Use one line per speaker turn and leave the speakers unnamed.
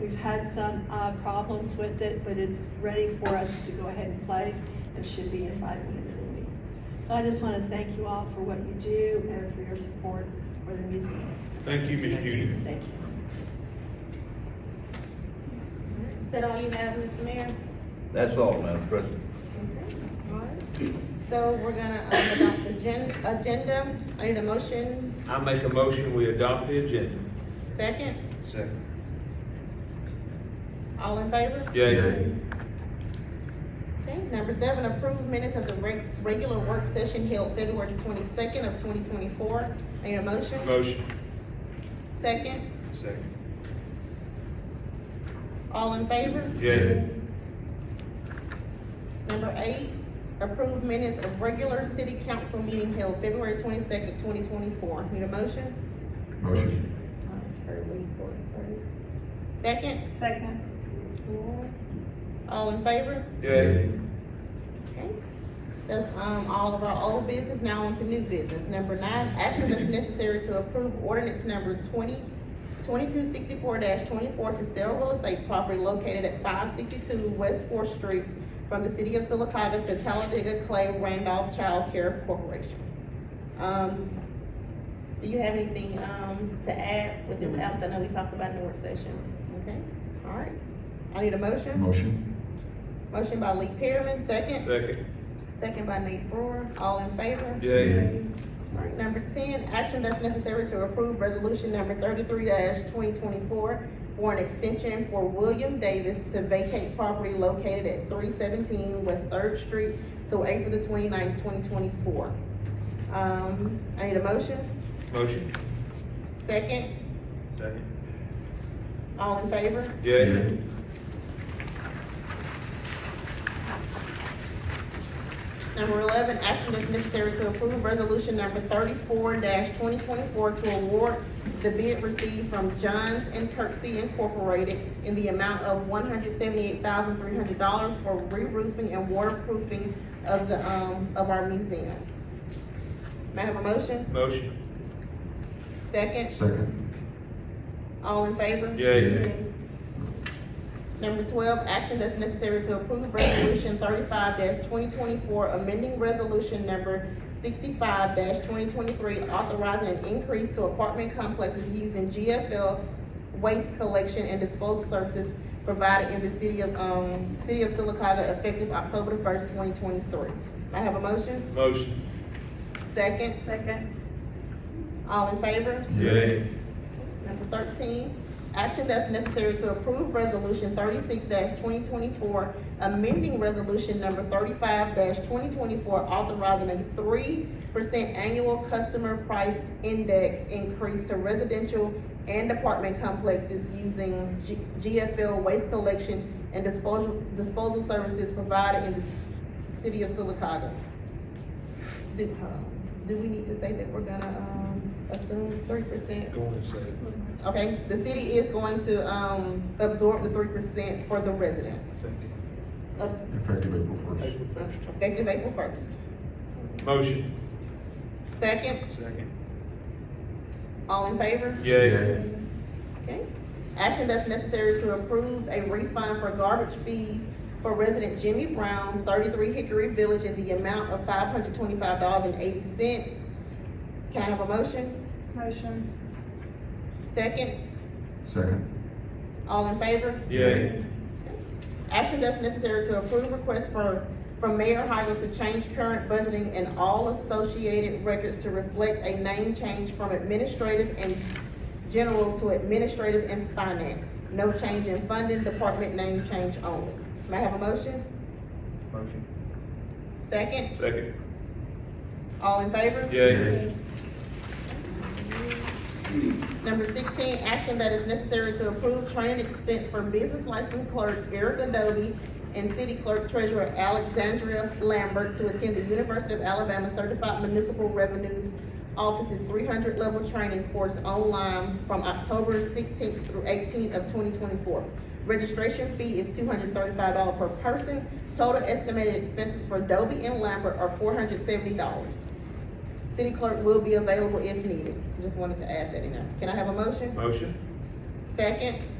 We've had some, uh, problems with it, but it's ready for us to go ahead and place. It should be in by the end of the week. So I just wanna thank you all for what you do and for your support for the museum.
Thank you, Ms. Judy.
Thank you.
Is that all you have, Mr. Mayor?
That's all, Madam President.
So we're gonna um, adopt the gen, agenda. I need a motion,
I make a motion, we adopt the agenda.
second.
Second.
All in favor?
Yay.
Okay, number seven, approve minutes of the reg, regular work session held February twenty-second of twenty twenty-four. I need a motion,
Motion.
second.
Second.
All in favor?
Yay.
Number eight, approve minutes of regular city council meeting held February twenty-second, twenty twenty-four. Need a motion?
Motion.
Um, Hurley for first. Second?
Second.
All in favor?
Yay.
Okay. That's, um, all of our old business, now on to new business. Number nine, action that's necessary to approve ordinance number twenty, twenty-two sixty-four twenty-four to sell real estate property located at five sixty-two West Fourth Street from the city of Silicaca to Talladega Clay Randolph Child Care Corporation. Um, do you have anything, um, to add with this app? I know we talked about in the work session. Okay, all right. I need a motion.
Motion.
Motion by Lee Pearman, second.
Second.
Second by Nate Brewer, all in favor?
Yay.
Alright, number ten, action that's necessary to approve resolution number thirty-three twenty twenty-four for an extension for William Davis to vacate property located at three seventeen West Third Street till April the twenty-ninth, twenty twenty-four. Um, I need a motion,
Motion.
second,
Second.
all in favor?
Yay.
Number eleven, action is necessary to approve resolution number thirty-four twenty twenty-four to award the bid received from Johns and Kirksey Incorporated in the amount of one hundred seventy-eight thousand three hundred dollars for re-roofing and waterproofing of the, um, of our museum. May I have a motion?
Motion.
Second,
Second.
all in favor?
Yay.
Number twelve, action that's necessary to approve resolution thirty-five twenty twenty-four, amending resolution number sixty-five twenty twenty-three, authorizing an increase to apartment complexes using GFL waste collection and disposal services provided in the city of, um, city of Silicaca effective October the first, twenty twenty-three. I have a motion?
Motion.
Second,
Second.
all in favor?
Yay.
Number thirteen, action that's necessary to approve resolution thirty-six twenty twenty-four, amending resolution number thirty-five twenty twenty-four, authorizing a three percent annual customer price index increase to residential and apartment complexes using G- GFL waste collection and disposal, disposal services provided in the city of Silicaca. Do, hold on. do we need to say that we're gonna, um, assume three percent?
Going second.
Okay, the city is going to, um, absorb the three percent for the residents, of-
Effective April first.
effective April first.
Motion.
Second,
Second.
all in favor?
Yay.
Okay. Action that's necessary to approve a refund for garbage fees for resident Jimmy Brown, thirty-three Hickory Village, in the amount of five hundred twenty-five dollars and eighty cent. Can I have a motion?
Motion.
Second,
Second.
all in favor?
Yay.
Action that's necessary to approve request for, from Mayor Hoggle to change current budgeting and all associated records to reflect a name change from administrative and general to administrative and finance. No change in funding, department name change only. May I have a motion?
Motion.
Second,
Second.
all in favor?
Yay.
Number sixteen, action that is necessary to approve training expense for business license clerk Eric Adobe and city clerk treasurer Alexandria Lambert to attend the University of Alabama Certified Municipal Revenues Office's three hundred level training course online from October sixteenth through eighteenth of twenty twenty-four. Registration fee is two hundred thirty-five dollars per person. Total estimated expenses for Adobe and Lambert are four hundred seventy dollars. City clerk will be available if needed. Just wanted to add that in there. Can I have a motion?
Motion.
Second,